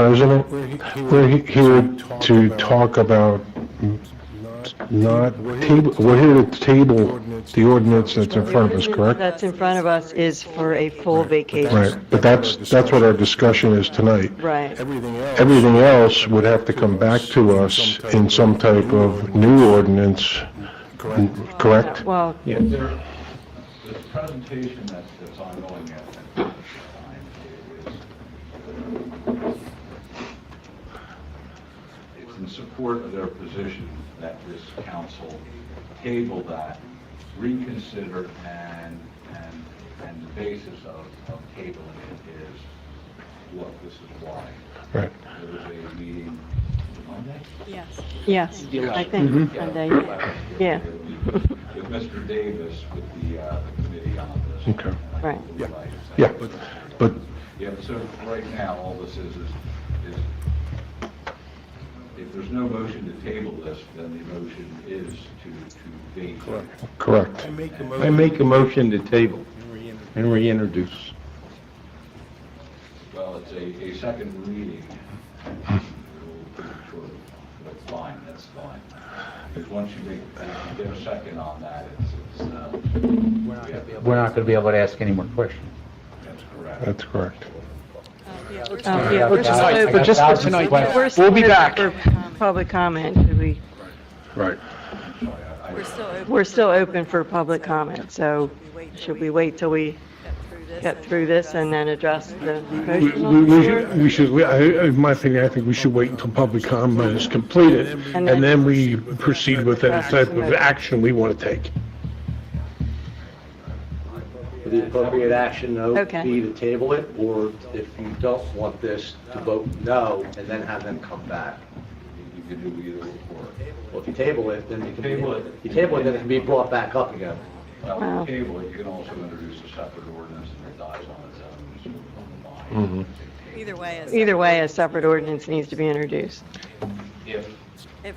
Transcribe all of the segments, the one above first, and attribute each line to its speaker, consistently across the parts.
Speaker 1: President,
Speaker 2: We're he- here
Speaker 1: we're he- here
Speaker 2: to talk
Speaker 1: to
Speaker 2: about-
Speaker 1: talk about
Speaker 2: Not
Speaker 1: not,
Speaker 2: We're here to
Speaker 1: table. we're here to table the ordinance that's in front of us, correct?
Speaker 3: That's in front of us is for a full
Speaker 1: Right,
Speaker 3: vacation.
Speaker 1: but that's, that's what our discussion is tonight.
Speaker 3: Right.
Speaker 2: everything else.
Speaker 1: Everything else would have to come back to us in some type of new ordinance,
Speaker 2: correct?
Speaker 1: correct?
Speaker 3: Well,
Speaker 4: There, the presentation that's, that's ongoing at the time is, it's in support of their position that this council table that, reconsider, and, and, and the basis of, of tabling it is, look, this is why.
Speaker 1: Right.
Speaker 4: There was a meeting Monday?
Speaker 3: yes, I
Speaker 5: Mm-hmm.
Speaker 4: Mm-hmm.
Speaker 1: Mm-hmm.
Speaker 3: think, Sunday, yeah,
Speaker 4: With Mr. Davis, with the, uh, the committee on this.
Speaker 1: Okay.
Speaker 3: Right.
Speaker 4: Yeah.
Speaker 1: Yeah, but,
Speaker 4: Yeah, so right now, all this is, is, is, if there's no motion to table this, then the motion is to, to vacate.
Speaker 1: correct.
Speaker 2: make a
Speaker 5: I make a motion to table and reintroduce.
Speaker 4: Well, it's a, a second reading. We'll keep it short, But fine, that's fine. Because once you make, if you get a second on that, it's, it's, uh, we have-
Speaker 6: We're not going to be able to ask any more questions.
Speaker 4: that's correct.
Speaker 1: That's correct.
Speaker 3: Oh, yeah, we're
Speaker 6: I
Speaker 3: supposed-
Speaker 6: got thousands of questions.
Speaker 3: we're
Speaker 5: We'll be
Speaker 3: supposed
Speaker 5: back.
Speaker 3: for Public comment, Did we,
Speaker 1: Right.
Speaker 7: We're still open.
Speaker 3: we're still open for public comment, so should we wait till we get through this and then address the
Speaker 8: We-
Speaker 3: motion?
Speaker 8: We
Speaker 3: on
Speaker 8: we
Speaker 3: the floor?
Speaker 8: should, we should, we- I- I- in my opinion, I think we should wait until public comment is completed,
Speaker 3: And
Speaker 8: and
Speaker 3: then-
Speaker 8: then we proceed with any type of action we want to take.
Speaker 9: The appropriate action, though, would
Speaker 3: Okay.
Speaker 9: be to table it, or if you don't want this, to vote no, and then have them come back.
Speaker 4: You can do either or.
Speaker 9: Well, if you table it, then it can be,
Speaker 4: Table it.
Speaker 9: you table it, then it can be brought back up again.
Speaker 4: Well,
Speaker 3: Wow.
Speaker 4: the table, it, you can also introduce a separate ordinance and it dies on its own, it's moved on
Speaker 8: Mm-hmm.
Speaker 4: the line.
Speaker 7: Either way is.
Speaker 3: Either way, a separate ordinance needs to be introduced.
Speaker 4: If,
Speaker 7: If-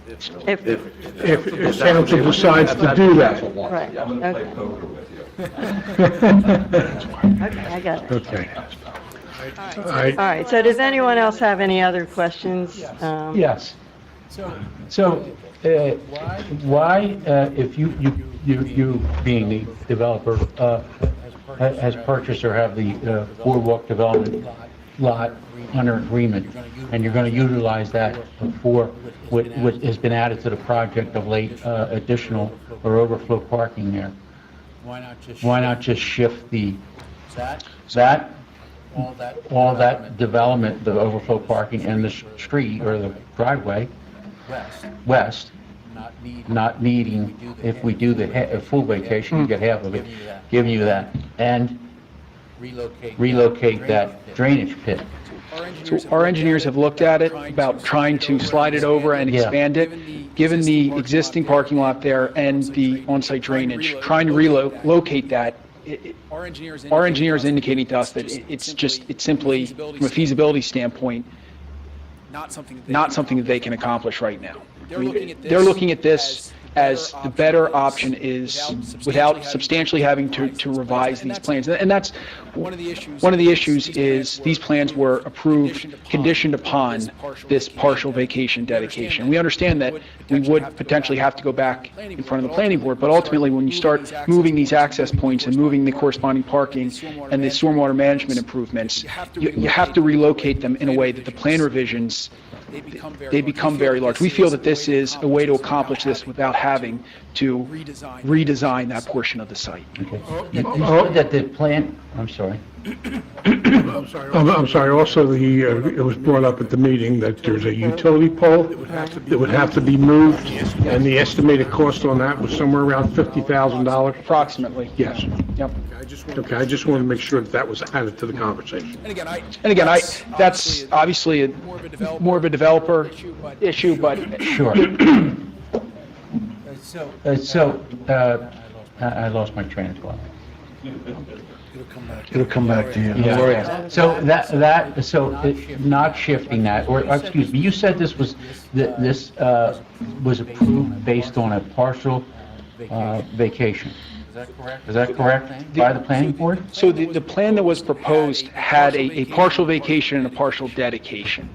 Speaker 8: If
Speaker 3: If,
Speaker 8: if council decides to do that.
Speaker 3: right,
Speaker 4: I'm gonna play
Speaker 3: okay,
Speaker 4: poker with you.
Speaker 3: okay, I got it.
Speaker 8: Okay.
Speaker 7: All
Speaker 8: I-
Speaker 3: All right, so does anyone else have any other questions? Um,
Speaker 6: Yes. So, uh, why, uh, if you, you, you you being the developer, uh, ha- has purchased or have the uh, boardwalk development lot under agreement, and you're going to utilize that for what, what has been added to the project of late, uh, additional or overflow parking there? Why not just shift the, that, all that development, the overflow parking and the s- street or the driveway west, not needing, if we do the ha- a full vacation, you get half of it, giving you that, and relocate that drainage pit.
Speaker 10: So our engineers have looked at it about trying to slide it over and
Speaker 6: Yeah.
Speaker 10: expand it, given the existing parking lot there and the on-site drainage, trying to relocate that. It- it- Our engineer is indicating to us that it- it's just, it's simply, from a feasibility standpoint, not something that they can accomplish right now. They're looking at this as the better option is without substantially having to to revise these plans. And that's, one of the issues is these plans were approved, conditioned upon this partial vacation dedication. We understand that we would potentially have to go back in front of the planning board, but ultimately, when you start moving these access points and moving the corresponding parking and the stormwater management improvements, you you have to relocate them in a way that the plan revisions they become very large. We feel that this is a way to accomplish this without having to redesign that portion of the site.
Speaker 6: You you said Oh, that the plan, I'm sorry.
Speaker 8: I'm I'm sorry, also, the, uh, it was brought up at the meeting that there's a utility pole that would have to be moved, and the estimated cost on that was somewhere around $50,000.
Speaker 10: Approximately.
Speaker 8: Yes.
Speaker 10: Yep.
Speaker 8: Okay, I just wanted to make sure that that was added to the conversation.
Speaker 10: And again, I, that's obviously a- more of a developer issue, but
Speaker 6: Sure. Uh, So, uh, I I lost my train of thought.
Speaker 1: It'll come back to you.
Speaker 6: Yeah, yeah. So that, that, so it- not shifting that, or, or excuse me, you said this was, that this uh, was approved based on a partial uh, vacation. Is that correct? By the planning board?
Speaker 10: so the, the plan that was proposed had a, a partial vacation and a partial dedication.